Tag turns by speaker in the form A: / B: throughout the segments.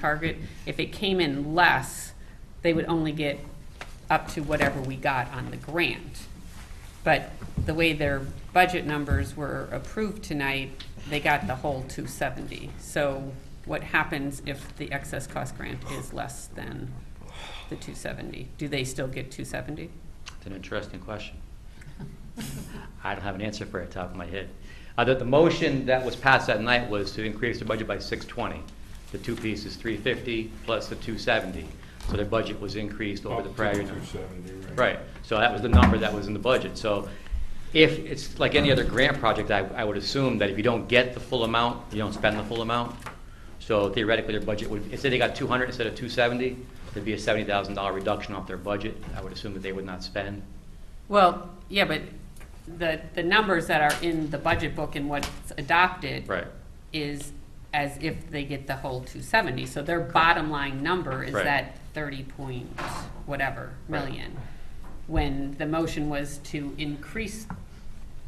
A: target, if it came in less, they would only get up to whatever we got on the grant. But the way their budget numbers were approved tonight, they got the whole two seventy. So what happens if the excess cost grant is less than the two seventy? Do they still get two seventy?
B: It's an interesting question. I don't have an answer for it off the top of my head. Uh, The the motion that was passed that night was to increase the budget by 620. The two pieces, 350 plus the 270. So their budget was increased over
C: Oh,
B: the prior year.
C: Two seventy, right?
B: Right, so that was the number that was in the budget. So if, it's like any other grant project, I, I would assume that if you don't get the full amount, you don't spend the full amount. So theoretically, their budget would, if they got two hundred instead of two seventy, there'd be a seventy thousand dollar reduction off their budget. I would assume that they would not spend.
A: Well, yeah, but the, the numbers that are in the budget book and what's adopted.
B: Right.
A: Is as if they get the whole two seventy, so their bottom line number is
B: Right.
A: that thirty point whatever
B: Right.
A: million. When the motion was to increase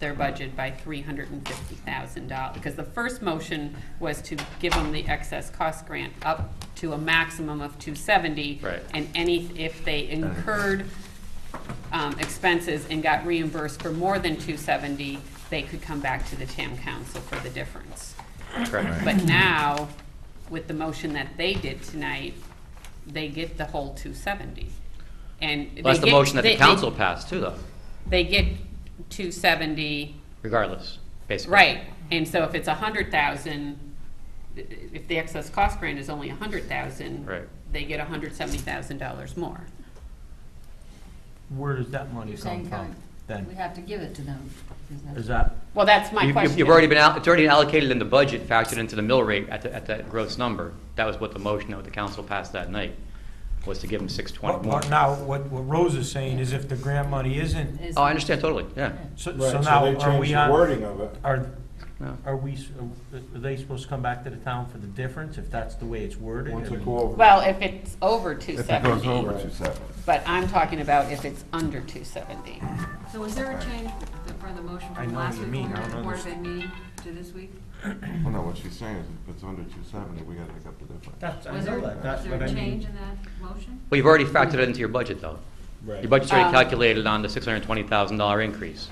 A: their budget by three hundred and fifty thousand dollars. Because the first motion was to give them the excess cost grant up to a maximum of two seventy.
B: Right.
A: And any, if they incurred um, expenses and got reimbursed for more than two seventy, they could come back to the town council for the difference.
B: Correct.
A: But now, with the motion that they did tonight, they get the whole two seventy. And. they
B: Well, That's the
A: get-
B: motion that
A: they-
B: the
A: they-
B: council passed too, though,
A: They get two seventy,
B: regardless, basically.
A: right, and so if it's a hundred thousand, if the excess cost grant is only a hundred thousand.
B: Right.
A: They get hundred seventy thousand dollars more.
D: Where does that money
E: You're
D: come
E: saying
D: from
E: don't- we
D: then?
E: have to give it to them. isn't it?
D: Is that,
A: Well, that's
B: You-
A: my
B: you-
A: question.
B: You've already been, al- it's already allocated in the budget, factored into the mill rate at, the- at that gross number. That was what the motion that the council passed that night, was to give them six twenty
D: what-
B: more.
D: what- now, what, what Rose is saying is if the grant money isn't,
E: Is-
B: Oh, I understand totally, yeah.
D: so
C: Right,
D: so
C: so
D: now
C: they
D: are
C: changed
D: we
C: the
D: on,
C: Wording of it.
D: are,
B: No.
D: are we, s- are they supposed to come back to the town for the difference if that's the way it's worded?
C: Once
D: I
C: it
D: mean,
C: go over.
A: Well, if it's over two
F: If it goes
A: seventy,
F: over two seventy.
A: but I'm talking about if it's under two seventy.
G: So was there a change for the motion
D: I
G: from
D: know
G: last
D: what you
G: week when
D: mean.
G: we
D: I
G: had the
D: don't
G: Board of Ed meeting to this week?
F: Well, no, what she's saying is if it's under two seventy, we gotta make up the difference.
D: That's, I
G: Was there,
D: know that,
G: was
D: that's
G: there
D: what I
G: a change
D: mean.
G: in that motion?
B: Well, you've already factored it into your budget, though.
C: Right.
B: Your budget's already
A: Um,
B: calculated on the six hundred and twenty thousand dollar increase.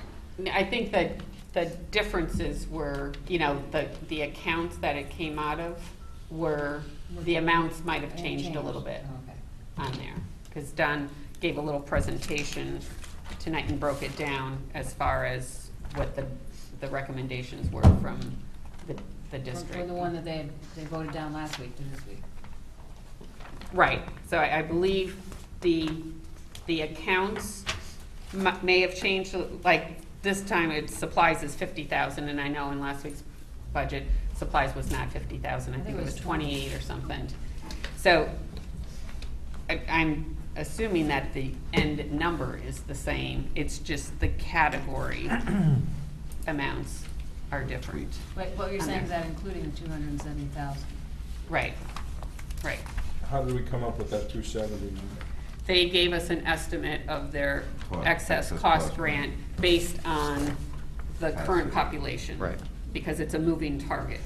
A: I think that the differences were, you know, the, the accounts that it came out of were, the amounts might have
E: It
A: changed a little bit
E: Okay.
A: on there. Because Don gave a little presentation tonight and broke it down as far as what the, the recommendations were from the, the
E: From-
A: district.
E: From the one that they, had- they voted down last week to this week.
A: Right, so I, I believe the, the accounts mu- may have changed, like, this time it supplies is fifty thousand, and I know in last week's budget, supplies was not fifty thousand, I think it was twenty-eight or something. So, I, I'm assuming that the end number is the same, it's just the category amounts are different.
E: Wait, what you're
A: On
E: saying is
A: there.
E: that including the two hundred and seventy thousand?
A: Right, right.
C: How did we come up with that two seventy number?
A: they gave us an estimate of their
F: Cost,
A: excess cost grant based on the current
F: Absolutely.
A: population.
B: Right.
A: Because it's a moving target,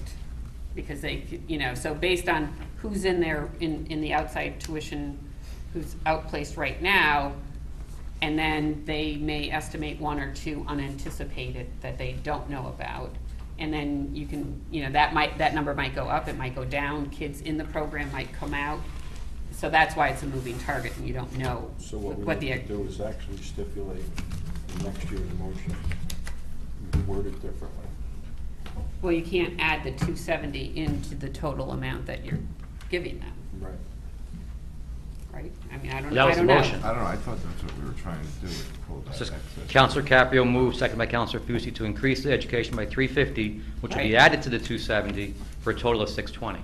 A: because they, c- you know, so based on who's in there, in, in the outside tuition, who's outplaced right now, and then they may estimate one or two unanticipated that they don't know about. And then you can, you know, that might, that number might go up, it might go down, kids in the program might come out. So that's why it's a moving target and you don't know
C: So what we
A: what
C: need
A: the,
C: to do is actually stipulate the next year's motion, word it differently.
A: well, you can't add the two seventy into the total amount that you're giving them,
C: Right.
A: right? I mean, I don't,
B: That
A: I
B: was the
A: don't know.
B: motion.
F: I don't know, I thought that's what we were trying to do, was pull that
B: So
F: excess.
B: Counselor Caprio moved, second by Counselor Fucy, to increase the education by three fifty, which will be
A: Right.
B: added to the two seventy, for a total of six twenty.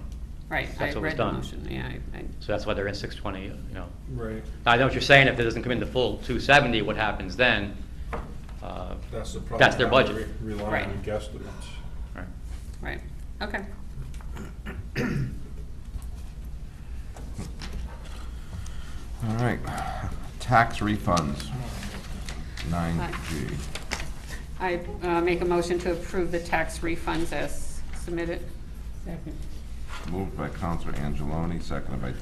A: Right, I
B: That's what was
A: read the
B: done.
A: motion, yeah, I, I,
B: So that's why they're in six twenty, you know.
C: Right.
B: I know what you're saying, if it doesn't come in the full two seventy, what happens then? Uh,
C: That's the problem.
B: That's their
C: now,
B: budget.
C: re- Relying on guesstimates.
B: right.
A: right, okay.
F: All right, tax refunds, nine G.
A: I uh, make a motion to approve the tax refunds as submitted.
F: Moved by Counselor Angeloni, seconded by